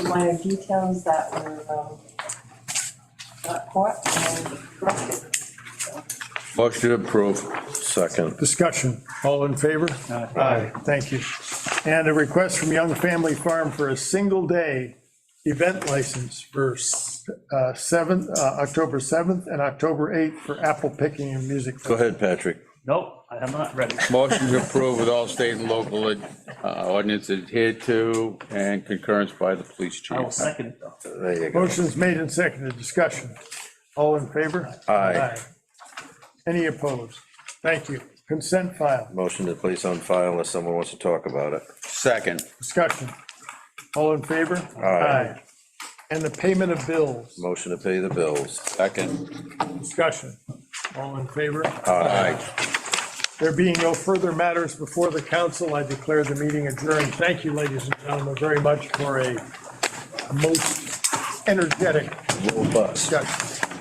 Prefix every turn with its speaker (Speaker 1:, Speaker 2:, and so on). Speaker 1: minor details that were, um, not caught and corrected.
Speaker 2: Motion to approve. Second.
Speaker 3: Discussion, all in favor? Aye. Thank you. And a request from Young Family Farm for a single day event license for uh, 7th, uh, October 7th and October 8th for apple picking and music.
Speaker 2: Go ahead, Patrick.
Speaker 4: Nope, I am not ready.
Speaker 5: Motion to approve with all state and local uh, ordinance adhered to and concurrence by the police chief.
Speaker 4: I will second it though.
Speaker 2: There you go.
Speaker 3: Motion's made and seconded, discussion, all in favor?
Speaker 2: Aye.
Speaker 3: Any opposed? Thank you. Consent file,
Speaker 2: Motion to place on file unless someone wants to talk about it.
Speaker 5: Second,
Speaker 3: discussion, all in favor? Aye. And the payment of bills,
Speaker 2: Motion to pay the bills.
Speaker 5: second.
Speaker 3: discussion, all in favor?
Speaker 2: Aye.
Speaker 3: There being no further matters before the council, I declare the meeting adjourned. Thank you, ladies and gentlemen, very much for a most energetic
Speaker 2: Little bus.
Speaker 3: discussion.